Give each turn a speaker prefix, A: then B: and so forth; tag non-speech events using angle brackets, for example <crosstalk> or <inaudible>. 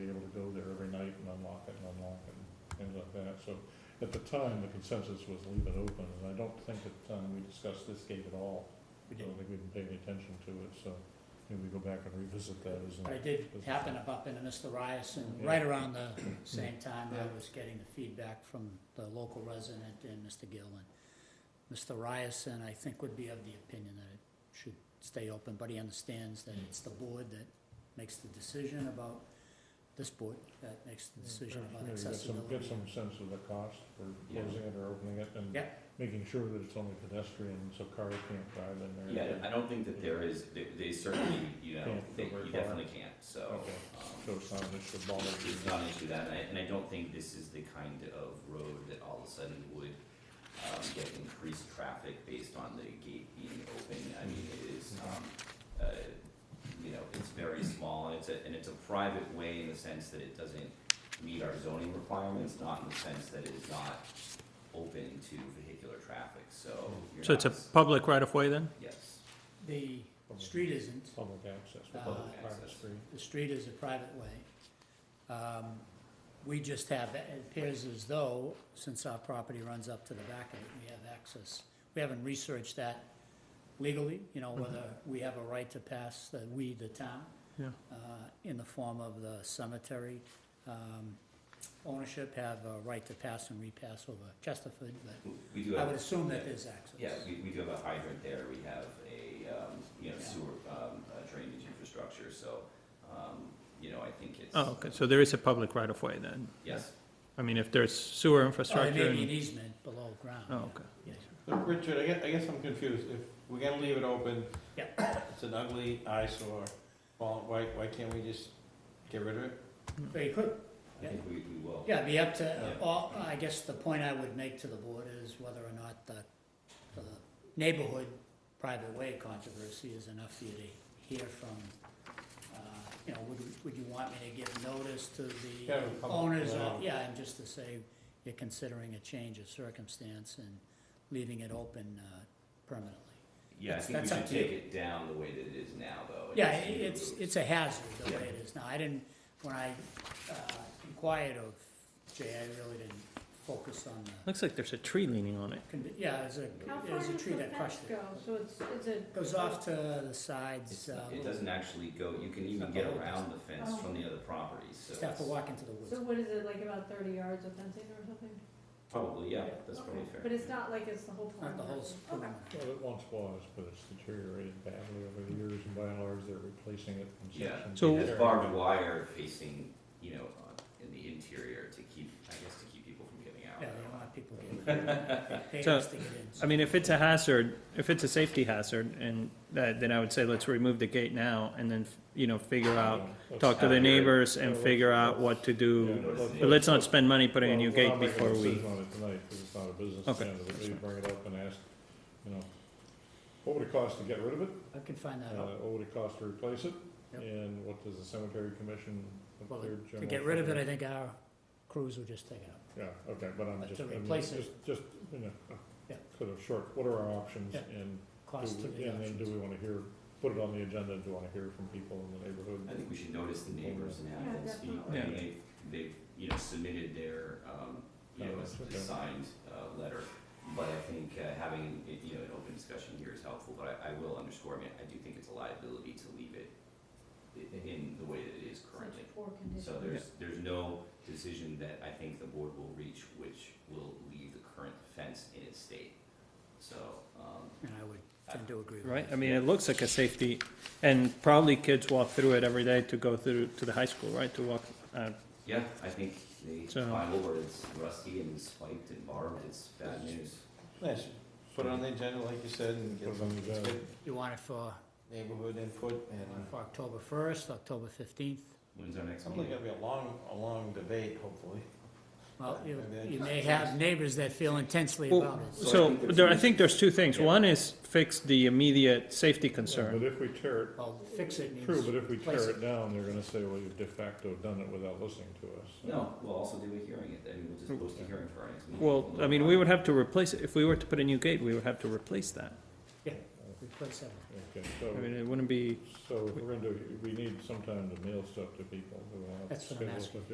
A: So at the time, the consensus was leave it open, and I don't think at the time we discussed this gate at all. I
B: We
A: don't
B: didn't.
A: think we've been paying attention to it, so maybe we go back and revisit that as
B: But
A: an
B: it did happen up in Mr. Ryerson,
A: Yeah.
B: right around the same time
C: Yeah.
B: I was getting the feedback from the local resident and Mr. Gill. And Mr. Ryerson, I think, would be of the opinion that it should stay open, but he understands that it's the board that makes the decision about, this board that makes the decision about
A: Yeah, you get some-
B: accessibility.
A: Get some sense of the cost for
C: Yeah.
A: closing it or opening it and
B: Yeah.
A: making sure that it's only pedestrian, so cars can't drive in there.
C: Yeah, I don't think that there is, they- they certainly, you know,
A: Can't
C: they-
A: go very
C: you
A: far.
C: definitely can't, so.
A: Okay.
C: um,
A: So it's not an issue of bother you.
C: It's not an issue that, and I, and I don't think this is the kind of road that all of a sudden would, um, get increased traffic based on the gate being open. I mean, it is,
A: Mm-hmm.
C: um, uh, you know, it's very small, and it's a, and it's a private way in the sense that it doesn't meet our zoning requirements, not in the sense that it is not open to vehicular traffic, so
A: Mm-hmm.
C: you're
D: So it's a
C: not s-
D: public right-of-way then?
C: Yes,
B: The street isn't,
A: Public access,
B: Uh,
A: public private
C: access.
A: street.
B: the street is a private way. Um, We just have, it appears as though, since our property runs up to the back of it, we have access. We haven't researched that legally, you know, whether we have a right to pass, the we, the town,
D: Yeah.
B: uh, in the form of the cemetery um, ownership, have a right to pass and repass over Chesterford, but
C: We- we do have.
B: I would assume that
C: yeah.
B: there's access.
C: Yeah, we, we do have a hydrant there, we have a, um, you know,
B: Yeah.
C: sewer, um, uh, drainage infrastructure, so, um, you know, I think it's.
D: Oh, okay, so there is a public right-of-way then?
C: Yes,
D: I mean, if there's sewer
B: Or there
A: Oh,
D: infrastructure
B: may be an
D: and,
B: easement below ground.
D: oh, okay.
B: Yeah.
E: Look, Richard, I guess, I guess I'm confused, if we're gonna leave it open.
B: Yeah.
E: It's an ugly eyesore, well, why, why can't we just get rid of it?
B: But you could,
C: I think we, we will.
B: Yeah, it'd be up to, uh,
C: Yeah.
B: all- I guess the point I would make to the board is whether or not the, the neighborhood private way controversy is enough for you to hear from, uh, you know, would, would you want me to give notice to
E: Yeah,
B: the
E: we'll come-
B: owners?
E: yeah.
B: of- Yeah, and just to say you're considering a change of circumstance and leaving it open uh, permanently.
C: Yeah, I
B: That's-
C: think we
B: that's up
C: should
B: to you.
C: take it down the way that it is now, though. and
B: Yeah,
C: just
B: it-
C: remove-
B: it's, it's a hazard the way
C: Yeah.
B: it is now. I didn't, when I uh, inquired of Jay, I really didn't focus on the
D: Looks like there's a tree leaning on it.
B: Can be- Yeah, there's a,
F: How far
B: there's
F: does
B: a
F: the
B: tree that
F: fence
B: crushed
F: go?
B: it.
F: So it's, it's a.
B: Goes off to the
C: It's
B: sides, uh, Oh.
C: not- It doesn't actually go, you can even get around the fence from the other properties, so.
B: just have to
C: it's-
B: walk into the
F: So
B: woods.
F: what is it, like about thirty yards of fencing or something?
C: Probably, yeah, that's
F: Okay.
C: probably fair.
F: But it's not like it's the whole
B: Not
F: pond.
B: the
F: or
B: whole
F: anything.
B: perimeter.
A: Well, it once was, but it's deteriorated badly over the years, and by and large, they're replacing it in
C: Yeah,
A: sections.
D: So-
C: it has barbed wire facing, you know, on- in the interior to keep, I guess, to keep people from getting
B: Yeah,
C: out.
B: they don't want people
A: <laughs>
B: getting, they pay
D: So,
B: us to get in.
D: I mean, if it's a hazard, if it's a safety hazard, and that, then I would say let's remove the gate now and then, you know, figure out,
A: Let's-
D: talk to
C: Yeah.
D: the neighbors and figure out what to do.
A: Yeah,
D: But let's not spend money putting a new
A: Well, we're
D: gate
A: not making a
D: before we,
A: decision on it tonight, 'cause it's not a business
D: Okay,
A: plan, but
D: that's
A: we
D: fine.
A: bring it up and ask, you know, what would it cost to get rid of it?
B: I can find that
A: Uh,
B: out.
A: what would it cost to replace it?
B: Yep.
A: And what does the cemetery commission,
B: Well,
A: what their general?
B: To get rid of it, I think our crews will just take it up.
A: Yeah, okay, but I'm
B: But
A: just,
B: to
A: I mean,
B: replace it-
A: just, just, you know, uh,
B: Yeah.
A: sort of short, what are our options?
B: Yeah.
A: And
B: Cost to
A: do we-
B: the
A: And then do
B: options.
A: we wanna hear, put it on the agenda, do we wanna hear from people in the neighborhood?
C: I think we should notice the neighbors and
F: Yeah,
C: have them speak.
F: definitely.
C: I mean, they, they, you know, submitted their, um, you know,
A: Comments,
C: a
A: okay.
C: signed, uh, letter. But I think, uh, having, it- you know, an open discussion here is helpful, but I, I will underscore, I mean, I do think it's a liability to leave it i- in the way that it is currently.
F: Such poor condition.
C: So there's, there's no decision that I think the board will reach which will leave the current fence in its state. So, um,
B: And I would tend to agree with that.
D: right? I mean, it looks like a safety, and probably kids walk through it every day to go through to the high school, right? To walk, uh,
C: Yeah, I think they
D: So-
C: climb over, it's rusty and spiked and barbed, it's bad news.
E: Yes, put it on the agenda, like you said,
A: Put
E: and get
A: it on
E: some
A: the agenda.
B: You want it for,
E: neighborhood input, and uh,
B: for October first, October fifteenth?
C: When's our next
E: it's only
C: meeting?
E: gonna be a long, a long debate, hopefully.
B: Well, you,
E: Maybe I
B: you
E: just-
B: may have neighbors that feel intensely
D: Well,
B: about it.
C: So I
D: So,
C: think there's
D: there, I
C: some-
D: think there's two things.
C: Yeah.
D: One is fix the immediate safety
A: But
D: concern.
A: if we tear it,
B: Well, fix it means.
A: True, but if we
B: place
A: tear
B: it.
A: it down, they're gonna say, well, you've de facto done it without listening to us.
C: No, we'll also do a hearing, I mean, we'll just post a hearing for our next meeting.
D: Well, I mean, we would have to replace it. If we were to put a new gate, we would have to replace that.
B: Replace everything.
A: Okay,
D: I mean,
A: so,
D: it wouldn't be.
A: so we're gonna do, we need some time to mail stuff to people. We won't have to
B: That's what I'm
A: schedule
B: asking.
A: it.